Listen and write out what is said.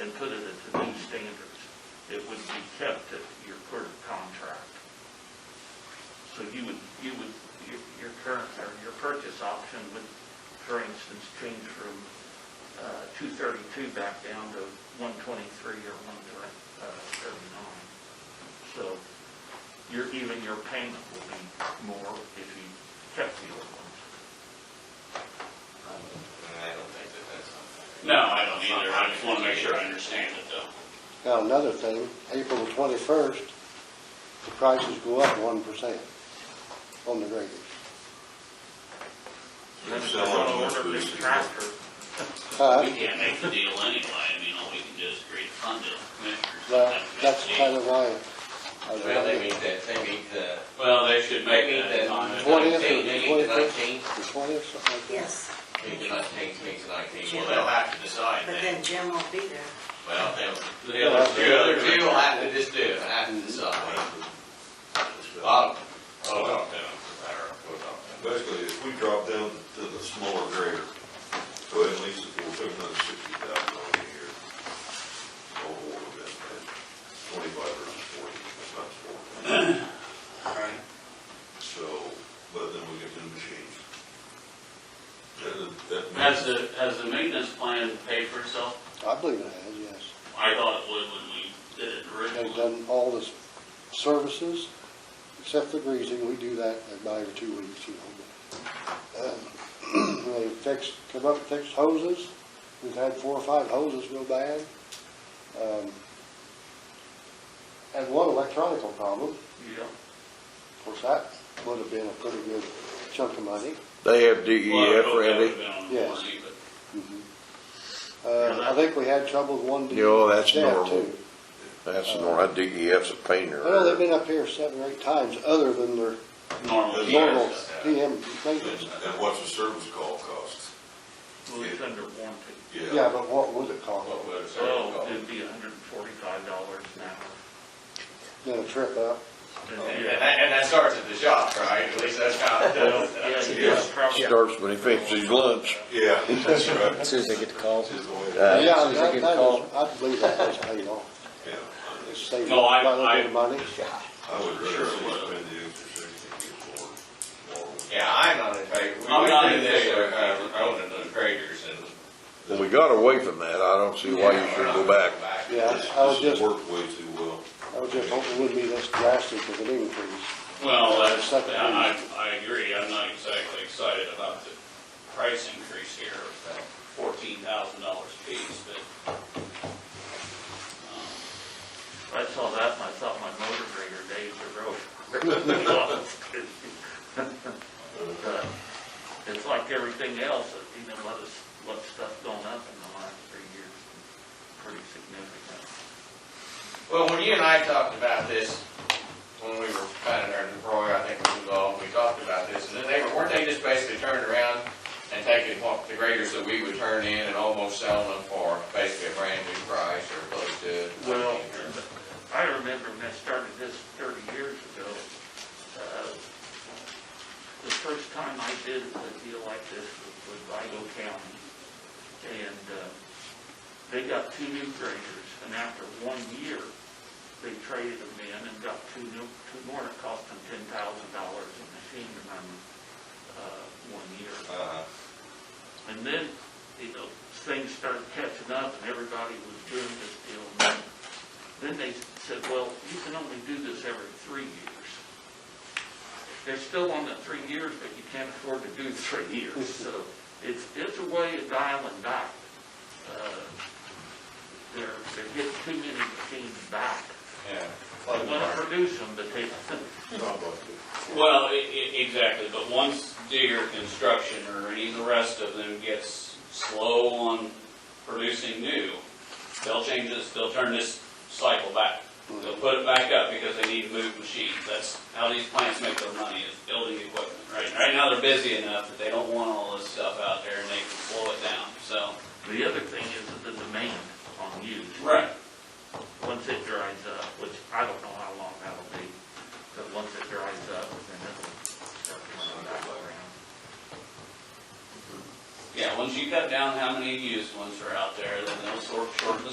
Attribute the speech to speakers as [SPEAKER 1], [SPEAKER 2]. [SPEAKER 1] and put it at the new standards, it would be kept at your current contract. So you would, you would, your, your current, or your purchase option would, for instance, change from, uh, two thirty-two back down to one twenty-three or one uh, thirty-nine. So your, even your payment will be more if you kept the old ones. Uh,
[SPEAKER 2] I don't think that that's something.
[SPEAKER 3] No, I don't either. I just want to make sure I understand it though.
[SPEAKER 4] Now, another thing, April the twenty-first, the prices go up one percent on the graders.
[SPEAKER 1] Then if
[SPEAKER 2] Sell
[SPEAKER 1] they're gonna
[SPEAKER 2] them as
[SPEAKER 1] order a
[SPEAKER 2] much
[SPEAKER 1] big
[SPEAKER 2] as-
[SPEAKER 1] tractor,
[SPEAKER 4] Uh,
[SPEAKER 3] We can't make the deal anyway. I mean, all we can do is agree to fund it. Commissioners
[SPEAKER 4] that-
[SPEAKER 3] have to make
[SPEAKER 4] that's
[SPEAKER 3] the deal.
[SPEAKER 4] kind of why. I
[SPEAKER 2] Well,
[SPEAKER 4] was
[SPEAKER 2] they
[SPEAKER 4] wondering.
[SPEAKER 2] meet that, they meet the,
[SPEAKER 3] Well, they should
[SPEAKER 2] they
[SPEAKER 3] make
[SPEAKER 2] meet
[SPEAKER 3] that
[SPEAKER 2] the
[SPEAKER 3] time.
[SPEAKER 4] What is
[SPEAKER 2] twentieth,
[SPEAKER 4] it?
[SPEAKER 2] they meet the nineteenth,
[SPEAKER 4] The twentieth, something like that?
[SPEAKER 5] Yes,
[SPEAKER 2] meet the nineteenth, meet the nineteenth.
[SPEAKER 3] Well, they'll have to
[SPEAKER 5] but
[SPEAKER 3] decide then.
[SPEAKER 5] then Jim won't be there.
[SPEAKER 2] Well, they'll,
[SPEAKER 3] The other,
[SPEAKER 2] the
[SPEAKER 3] the
[SPEAKER 2] other two
[SPEAKER 3] other.
[SPEAKER 2] will have to just do it, have to decide. I'll, I'll talk to them. I'll talk to them.
[SPEAKER 6] Basically, if we drop down to the smaller grader, go ahead and lease it for two hundred and sixty thousand dollars a year. Or more than that, twenty-five versus forty, times four.
[SPEAKER 3] Right.
[SPEAKER 6] So, but then we get new machines. That, that.
[SPEAKER 3] Has the, has the maintenance plan paid for itself?
[SPEAKER 4] I believe it has, yes.
[SPEAKER 3] I thought it would when we did it
[SPEAKER 4] They've
[SPEAKER 3] originally.
[SPEAKER 4] done all the services, except the greasing, we do that about every two weeks, you know. but, um, They fixed, come up and fixed hoses, we've had four or five hoses go bad. Um, Had one electronical problem,
[SPEAKER 1] you know,
[SPEAKER 4] of course, that would have been a pretty good chunk of money.
[SPEAKER 7] They have E
[SPEAKER 3] Well, I
[SPEAKER 7] DEF
[SPEAKER 3] hope that
[SPEAKER 7] ready.
[SPEAKER 3] would've been on the
[SPEAKER 4] Yes.
[SPEAKER 3] warranty, but-
[SPEAKER 4] Uh, I think we had trouble with one.
[SPEAKER 7] Mm-hmm. Yeah, well, that's
[SPEAKER 4] staff,
[SPEAKER 7] normal.
[SPEAKER 4] too.
[SPEAKER 7] That's normal, DEF's E a painter.
[SPEAKER 4] Well, they've been up here seven or eight times, other than their
[SPEAKER 3] Normal.
[SPEAKER 4] normal
[SPEAKER 3] years.
[SPEAKER 4] PM maintenance.
[SPEAKER 6] And what's the service call cost?
[SPEAKER 1] well, it's under warranty.
[SPEAKER 4] Yeah, but what would it cost?
[SPEAKER 2] What would it
[SPEAKER 3] Oh,
[SPEAKER 1] So oh.
[SPEAKER 2] say?
[SPEAKER 1] it'd be hundred and forty-five dollars an hour.
[SPEAKER 4] Then a trip up.
[SPEAKER 2] And that, and that starts at the shop, right? At least that's how it
[SPEAKER 1] Well,
[SPEAKER 2] does.
[SPEAKER 1] Yeah, you got probably,
[SPEAKER 7] Starts when he finishes his lunch.
[SPEAKER 6] Yeah, that's right.
[SPEAKER 8] As soon as they get the call.
[SPEAKER 6] Just go ahead.
[SPEAKER 7] Uh,
[SPEAKER 4] Yeah,
[SPEAKER 8] as soon as they
[SPEAKER 4] that,
[SPEAKER 8] get
[SPEAKER 4] that
[SPEAKER 8] called.
[SPEAKER 4] is, I believe that was paid off.
[SPEAKER 6] Yeah,
[SPEAKER 4] It saved
[SPEAKER 3] No, I-
[SPEAKER 4] quite a little bit of money.
[SPEAKER 6] I would rather spend the extra sixty and get more, more.
[SPEAKER 2] Yeah, I'm not in favor. We
[SPEAKER 3] I'm not
[SPEAKER 2] went through
[SPEAKER 3] in
[SPEAKER 2] this,
[SPEAKER 3] favor.
[SPEAKER 2] uh, Owning those graders and.
[SPEAKER 7] When we got away from that, I don't see why you should go back.
[SPEAKER 4] Yeah,
[SPEAKER 6] This
[SPEAKER 4] I was
[SPEAKER 6] this
[SPEAKER 4] just,
[SPEAKER 6] worked way too well.
[SPEAKER 4] I was just hoping it wouldn't be this drastic of an increase.
[SPEAKER 3] Well, that's,
[SPEAKER 4] Second reading.
[SPEAKER 3] I, I agree, I'm not exactly excited about the price increase here, of fourteen thousand dollars a piece, but
[SPEAKER 1] I saw that and I thought my motor grader days are over. But It's like everything else, you know, let us, let stuff gone up in the last three years, pretty significant.
[SPEAKER 2] Well, when you and I talked about this, when we were kind of there in the program, I think we was involved, we talked about this, and then they, were- weren't they just basically turning around and taking what, the graders that we would turn in and almost selling them for basically a brand new price or close to it? I
[SPEAKER 1] Well,
[SPEAKER 2] mean, or-
[SPEAKER 1] I remember when I started this thirty years ago, uh, the first time I did a deal like this was with Vigo County. And, uh, they got two new graders, and after one year, they traded them in and got two new, two more, it cost them ten thousand dollars a machine to run, uh, one year.
[SPEAKER 6] Uh,
[SPEAKER 1] And then, you know, things started catching up and everybody was doing this deal. And then- Then they said, well, you can only do this every three years. They're still on the three years, but you can't afford to do three years. So it's, it's a way of dial and die. Uh, They're, they're getting too many machines back.
[SPEAKER 2] Yeah.
[SPEAKER 1] They want to produce them, but they,
[SPEAKER 6] not like it.
[SPEAKER 3] Well, i- i- exactly, but once Deere Construction or any of the rest of them gets slow on producing new, they'll change this, they'll turn this cycle back. They'll put it back up because they need to move machines, that's how these plants make their money, is building equipment, right? Right now, they're busy enough that they don't want all this stuff out there and they can slow it down, so.
[SPEAKER 1] the other thing is the demand on used.
[SPEAKER 3] Right.
[SPEAKER 1] once it dries up, which I don't know how long that'll be, but once it dries up, then it'll start coming back around.
[SPEAKER 3] Yeah, once you cut down how many used ones are out there, then they'll sort, shorten the